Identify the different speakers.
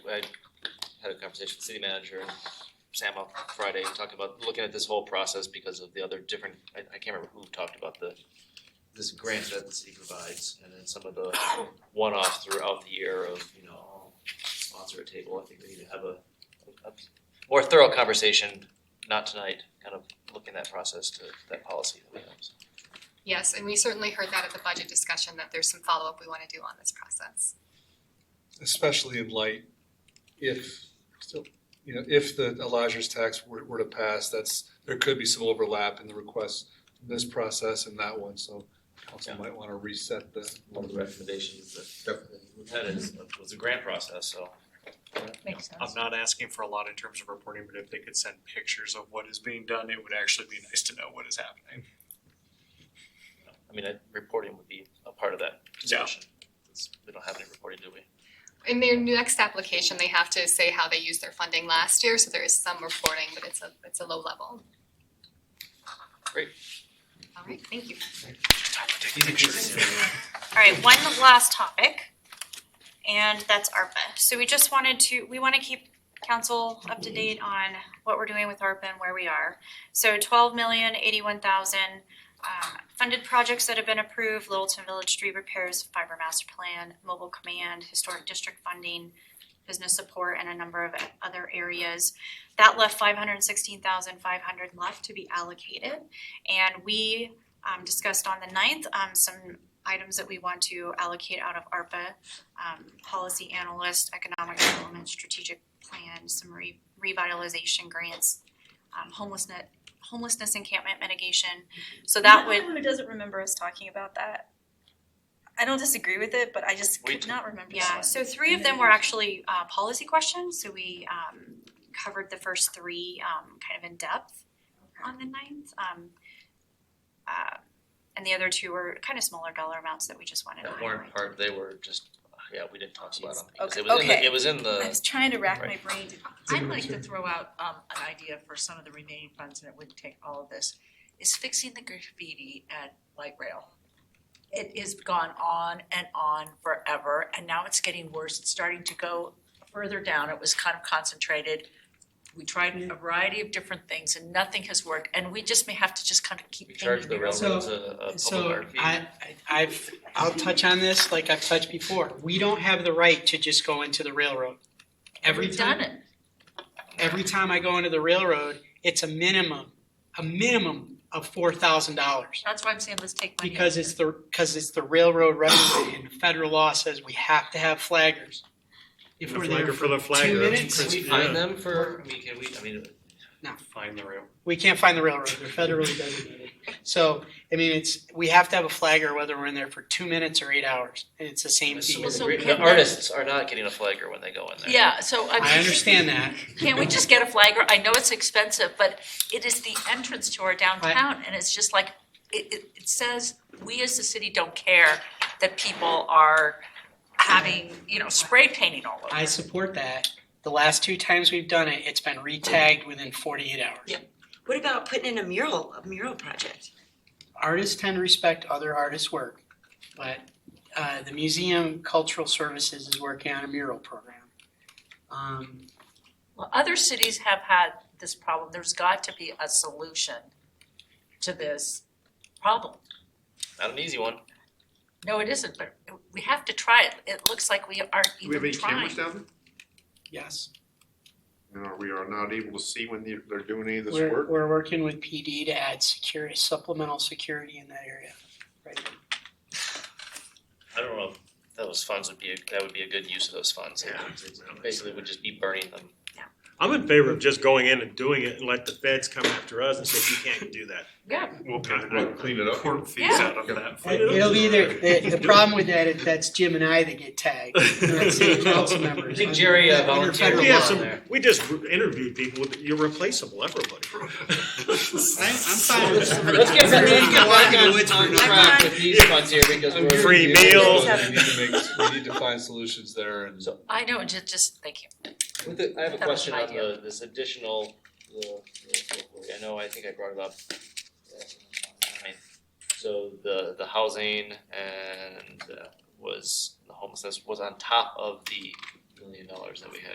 Speaker 1: I had a conversation with city manager and Sam on Friday, talking about looking at this whole process because of the other different, I, I can't remember who talked about the, this grant that the city provides, and then some of the one-offs throughout the year of, you know, I'll sponsor a table, I think we need to have a, a more thorough conversation, not tonight, kind of looking at that process to, that policy that we have, so.
Speaker 2: Yes, and we certainly heard that at the budget discussion, that there's some follow-up we want to do on this process.
Speaker 3: especially in light if, still, you know, if the Elijah's tax were, were to pass, that's, there could be some overlap in the requests, from this process and that one, so council
Speaker 1: Yeah.
Speaker 3: might want to reset the.
Speaker 1: One of the recommendations that we've had is, was the grant process, so.
Speaker 2: Makes
Speaker 4: I'm not asking for a lot in terms of reporting, but if they could send pictures of what is being done, it would actually be nice to know what is happening.
Speaker 1: I mean, I- reporting would be a part of that discussion. It's- We don't have any reporting, do we?
Speaker 2: In their next application, they have to say how they used their funding last year, so there is some reporting, but it's a, it's a low level.
Speaker 1: Great.
Speaker 2: All right, thank you.
Speaker 5: All right, one last topic, and that's ARPA. So we just wanted to, we want to keep council up to date on what we're doing with ARPA and where we are. So twelve million, eighty-one thousand, um, funded projects that have been approved, Littleton Village Street repairs, fiber master plan, mobile command, historic district funding, business support, and a number of other areas. That left five hundred and sixteen thousand, five hundred left to be allocated. And we, um, discussed on the ninth, um, some items that we want to allocate out of ARPA, um, policy analyst, economic development, strategic plan, some re- revitalization grants, um, homelessness, homelessness encampment mitigation. So that would.
Speaker 6: Who doesn't remember us talking about that? I don't disagree with it, but I just
Speaker 1: We
Speaker 6: could
Speaker 1: do.
Speaker 6: not remember.
Speaker 5: Yeah,
Speaker 6: this
Speaker 5: so three of them were actually uh policy questions, so we um covered the first three um kind of in depth on the ninth. Um uh and the other two were kind of smaller dollar amounts that we just wanted to
Speaker 1: That
Speaker 5: highlight.
Speaker 1: weren't part, they were just, yeah, we didn't talk about them. because It
Speaker 6: Okay.
Speaker 1: was in the,
Speaker 6: Okay.
Speaker 1: it was in
Speaker 6: one. I
Speaker 1: the,
Speaker 6: was trying to rack my brain to
Speaker 7: I'd like to throw out um an idea for some of the remaining funds, and it wouldn't take all of this, is fixing the graffiti at light rail. It has gone on and on forever, and now it's getting worse, it's starting to go further down, it was kind of concentrated. We tried a variety of different things and nothing has worked, and we just may have to just kind of keep
Speaker 1: we
Speaker 7: paying
Speaker 1: charged the
Speaker 7: railroad.
Speaker 1: railroads a, a public
Speaker 8: So
Speaker 1: art fee.
Speaker 8: I, I- I've, I'll touch on this like I've touched before. We don't have the right to just go into the railroad. Every
Speaker 7: We've done
Speaker 8: time,
Speaker 7: it,
Speaker 8: every time I go into the railroad, it's a minimum, a minimum of four thousand dollars.
Speaker 7: that's why I'm saying let's take money out.
Speaker 8: Because it's the, because it's the railroad revenue and federal law says we have to have flaggers. If
Speaker 4: And a
Speaker 8: we're there
Speaker 4: flagger
Speaker 8: for
Speaker 4: for the
Speaker 8: two
Speaker 4: flagger.
Speaker 1: Can
Speaker 8: minutes,
Speaker 1: we find them for, I mean, can we, I mean,
Speaker 4: Find the rail.
Speaker 8: we can't find the railroad. They're federally designated. So, I mean, it's, we have to have a flagger whether we're in there for two minutes or eight hours. And it's the same fee.
Speaker 1: so
Speaker 7: so
Speaker 1: the-
Speaker 7: can
Speaker 1: the
Speaker 7: they-
Speaker 1: artists are not getting a flagger when they go in there.
Speaker 7: Yeah, so I mean.
Speaker 8: I understand that.
Speaker 7: Can't we just get a flagger? I know it's expensive, but it is the entrance to our downtown, and it's just like, it, it, it says, we as the city don't care that people are having, you know, spray painting all over.
Speaker 8: I support that. The last two times we've done it, it's been re-tagged within forty-eight hours.
Speaker 9: Yeah. What about putting in a mural, a mural project?
Speaker 8: Artists tend to respect other artists' work, but uh, the Museum Cultural Services is working on a mural program. Um,
Speaker 7: Well, other cities have had this problem. There's got to be a solution to this problem.
Speaker 1: Not an easy one.
Speaker 7: No, it isn't, but we have to try it. It looks like we aren't
Speaker 10: Do we have any
Speaker 7: even trying.
Speaker 10: cameras down
Speaker 8: yes,
Speaker 10: there? And are we are not able to see when they're- they're doing any of this
Speaker 8: we're,
Speaker 10: work?
Speaker 8: we're working with PD to add security, supplemental security in that area. Right.
Speaker 1: I don't know if those funds would be, that would be a good use of those funds.
Speaker 10: Yeah.
Speaker 1: Basically, would just be burning them.
Speaker 4: I'm in favor of just going in and doing it and let the feds come after us and say, you can't do that.
Speaker 7: Yeah,
Speaker 10: We'll we'll clean it up.
Speaker 4: Court fees
Speaker 7: Yeah.
Speaker 4: out of that.
Speaker 8: It'll be there, the, the problem with that is that's Jim and I that get tagged, not city council members.
Speaker 1: I think Jerry, uh,
Speaker 8: Under federal
Speaker 1: volunteered.
Speaker 4: We
Speaker 8: law.
Speaker 4: have some,
Speaker 1: there.
Speaker 4: we just interviewed people, you're replaceable, everybody.
Speaker 8: I- I'm fine with that.
Speaker 1: Let's get
Speaker 8: We're gonna get back on-
Speaker 1: on
Speaker 8: on
Speaker 1: track
Speaker 8: track
Speaker 1: with these funds here because
Speaker 3: I'm
Speaker 1: we're.
Speaker 3: good
Speaker 4: Free
Speaker 3: with the idea,
Speaker 4: meal.
Speaker 3: but We need to make, we need to find solutions there and.
Speaker 1: So-
Speaker 7: I know, just, just, thank you.
Speaker 1: With the, I have a
Speaker 7: That was
Speaker 1: question
Speaker 7: my
Speaker 1: on the, this additional, the, the- I know, I think I brought it up. I mean, So the, the housing and uh, was, the homelessness was on top of the million dollars that we had